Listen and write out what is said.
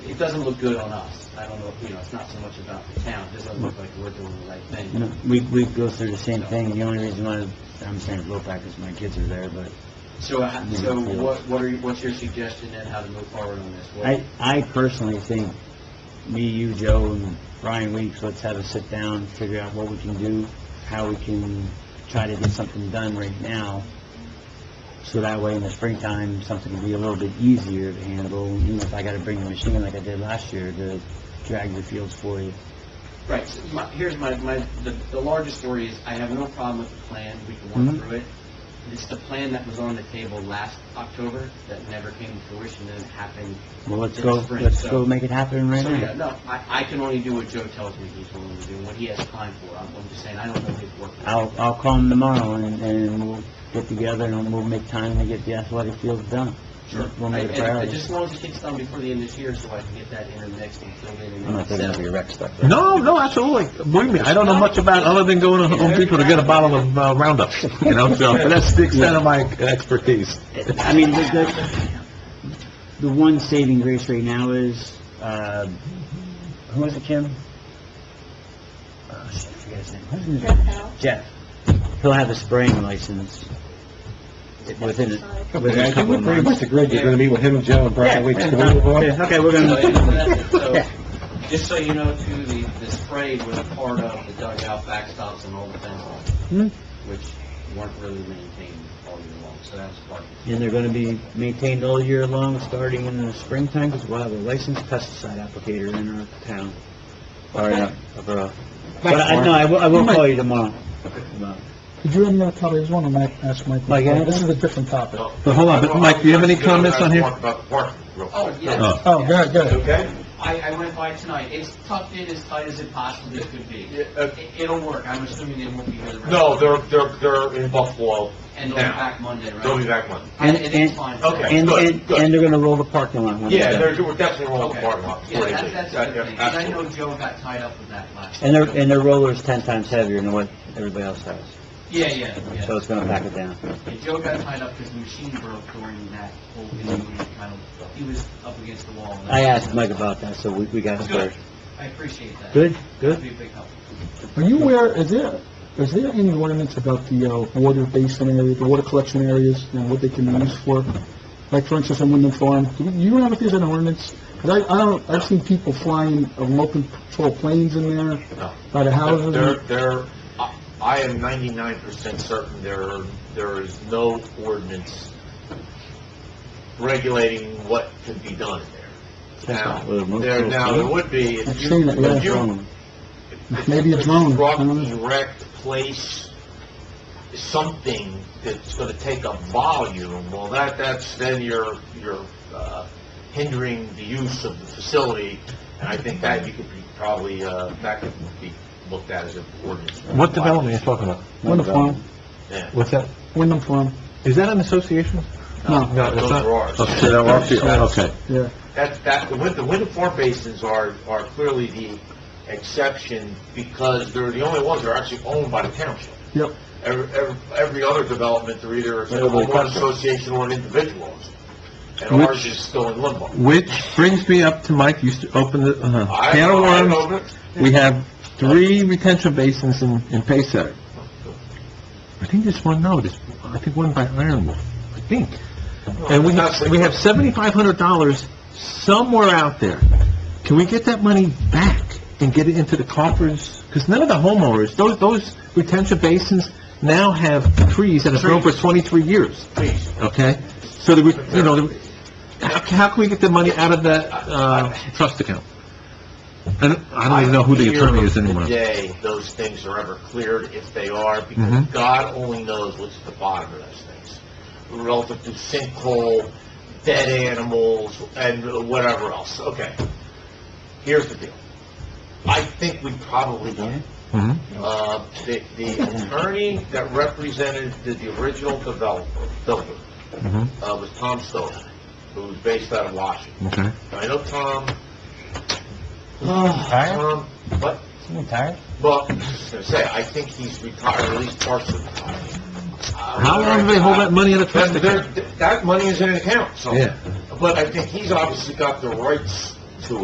doesn't look good on us. I don't know, you know, it's not so much about the town, it doesn't look like we're doing the right You thing. know, we, we go through the same thing, the only reason why I'm saying blow back is my kids are there, but So, uh, so what, what are, you- what's your suggestion then, how to move forward on this? What- I, I personally think, me, you, Joe, and Brian Weeks, let's have a sit-down, figure out what we can do, how we can try to get something done right now, so that way in the springtime, something will be a little bit easier to handle, you know, if I gotta bring the machine like I did last year to drag the fields for you. Right, so my, here's my, my, the, the largest story is, I have no problem with the plan, we can work Mhm. through it. It's the plan that was on the table last October that never came to fruition and it happened. Well, let's this go, spring, let's so- go make it happen right So, yeah, now. no, I, I can only do what Joe tells me he's willing to do, what he has time for, I'm, I'm just saying, I don't know his work. I'll, I'll call him tomorrow, and, and we'll get together, and we'll make time to get the athletic fields done. Sure. We'll I- make it a and I priority. just want to get done before the end of this year, so I can get that in the next and filled in. and- I'm not thinking of your rec stuff. though. No, no, absolutely. Believe me, I don't know much about, other than going to Home Depot to get a bottle of uh, Roundup, you know, so that's the extent of my expertise. I mean, the, the, the one saving grace right now is, uh, who was it, Kim? Oh, shit, I forget his name. Who's his name? Jeff. He'll have a spraying license within, a- within a couple of months. agreed you're gonna meet with him, Joe, and Yeah, yeah, Okay, we're So, yeah, gonna, that's it. So, uh, Yeah. Just so you know, too, the, the spray was part of the dugout backstops and all the fence lines, Hmm. which weren't really maintained all year long, so that was part of it. and they're gonna be maintained all year long, starting in the springtime, because we'll have a licensed pesticide applicator in our town. All right, uh, But I, no, I will, I will call you tomorrow. Tomorrow. Could you, um, Tommy, there's one I might ask Mike. Mike, yeah? This is a different topic. Oh, but hold on, but Mike, do you have any comments on here? About the park, real quick. Oh, yes. Oh. go ahead, go ahead. Okay? I, I went by tonight, it's tucked in as tight as it possibly could be. Yeah, uh, It- It'll work, I'm assuming they won't be here the rest. No, they're, they're, they're in Buffalo. And they'll be now. back Monday, right? They'll be back Monday. And and And- it's and- fine. okay. And, Good, and, good. and they're gonna roll the parking lot. when it's Yeah, done. they're, we're definitely rolling Okay. the parking lot. Yeah, before they that- leave. that's Yeah, the yeah, thing, 'cause I know absolutely. Joe got tied up with that last. And their, and their roller's ten times heavier than what everybody else has, Yeah, yeah, yeah. so it's gonna back it down. Yeah, Joe got tied up because the machine broke during that whole interview, and kind of, he was up against the wall. I asked Mike about that, so we, we got it Good. started. I appreciate that. Good, That'd good. be a big help. Are you aware, is there, is there any ordinance about the, uh, water basin area, the water collection areas, and what they can be used for? Like, for instance, on Wyndham Farm, do you- you know if there's an ordinance? 'Cause I, I don't, I've seen people flying uh, remote control planes in there, No. by the houses. They're, they're, I- I am ninety-nine percent certain there, there is no ordinance regulating what could be done in there. That's Now, not what it was. there, now, there would be, I've if seen you, it, yeah. if you Maybe a drone. Construct, I don't know. erect, place something that's gonna take up volume, well, that, that's, then you're, you're, uh, hindering the use of the facility, and I think that you could be probably, uh, that could be looked at as an ordinance. What development are you talking about? Wyndham Farm, Yeah. What's that? Wyndham Farm, Is that an association? no, No, it's Those not. are ours. Oh, so they're off the- Okay. yeah. That, that, the wind, the wind farm basins are, are clearly the exception, because they're the only ones that are actually owned by the township. Yep. Every, every, every other development, they're either a They're all homeowner contract. association or an individual. And Which- ours is still in limbo. Which brings me up to Mike, used to open the, uh, I- can of I worms. don't know, but- We have three retention basins in, in Paysack. I think there's one, no, there's, I think one by Ironwood, I think. And we have, we have seventy-five hundred dollars somewhere out there. Can we get that money back and get it into the coffers? Because none of the homeowners, those, those retention basins now have trees that have grown for twenty-three years, Please, okay? So that we, you know, the- how, how can we get the money out of that, uh, trust account? And I don't even know who the attorney is anymore. I fear the day those things are ever cleared, if they are, because Mhm. God only knows what's at the bottom of those things. Relative to sinkhole, dead animals, and whatever else. Okay. Here's the deal. I think we probably done it. Mhm. Uh, the, the attorney that represented the, the original developer, builder, Mhm. uh, was Tom Stoller, who was based out of Washington. Okay. I know Tom, Tired? Tom, what? You tired? Well, I was gonna say, I think he's retired, or at least partially retired. How long do they hold that money in a trust That, account? that money is in an account, so. Yeah. But I think he's obviously got the rights